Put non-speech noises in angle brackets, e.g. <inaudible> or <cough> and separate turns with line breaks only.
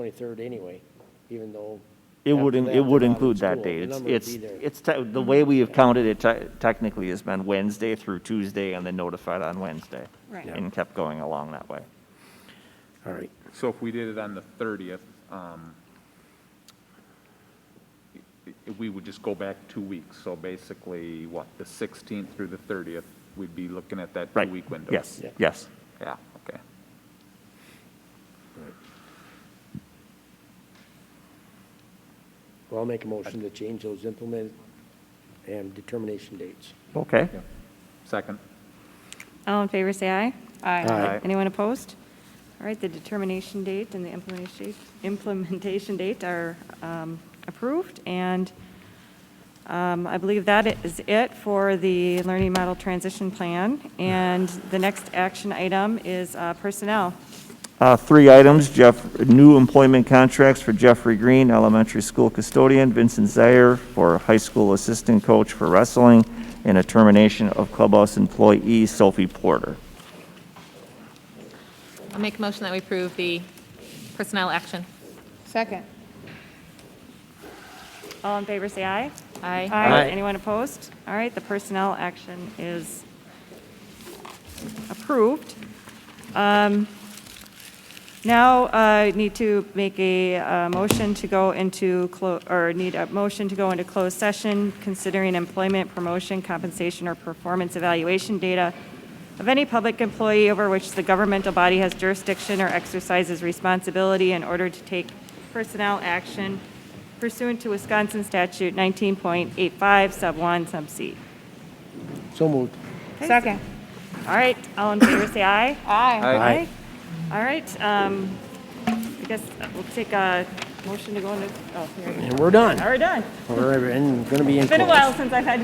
23rd anyway, even though.
It would,
after
in-
that,
it would
they're out of
include that
school. The
date. It's,
number would
it's,
be there.
it's, te- the way we have counted it te- technically has been Wednesday through Tuesday and then notified on Wednesday.
Right. Yeah.
And kept going along that way.
All right.
So if we did it on the 30th, um, i- i- we would just go back two weeks. So basically, what, the 16th through the 30th, we'd be looking at that
Right.
two-week window?
Yes,
Yeah.
yes.
Yeah, okay.
Well, I'll make a motion to change those implement and determination dates.
Okay.
Second?
All in favor, say aye.
Aye.
Anyone opposed? All right, the determination date and the implementation, <laughs> implementation date are um, approved, and um, I believe that is it for the Learning Model Transition Plan, and the next action item is uh, personnel.
Uh, Three items, Jeff, new employment contracts for Jeffrey Green, elementary school custodian, Vincent Zaire for high school assistant coach for wrestling, and a termination of clubhouse employee Sophie Porter.
I'll make a motion that we approve the personnel action.
Second.
All in favor, say aye.
Aye.
Aye. Anyone opposed? All right, the personnel action is approved. Um, Now, I need to make a uh, motion to go into, clo- or need a motion to go into closed session considering employment, promotion, compensation, or performance evaluation data of any public employee over which the governmental body has jurisdiction or exercises responsibility in order to take personnel action pursuant to Wisconsin Statute 19.85, Sub 1, Sub C.
So moved.
Second.
All right, all in favor, say aye.
Aye.
Aye.
All right, um, I guess we'll take a motion to go into, oh, here.
And we're done.
All right, done.
We're, and gonna be in.
It's been a
close.
while since I've had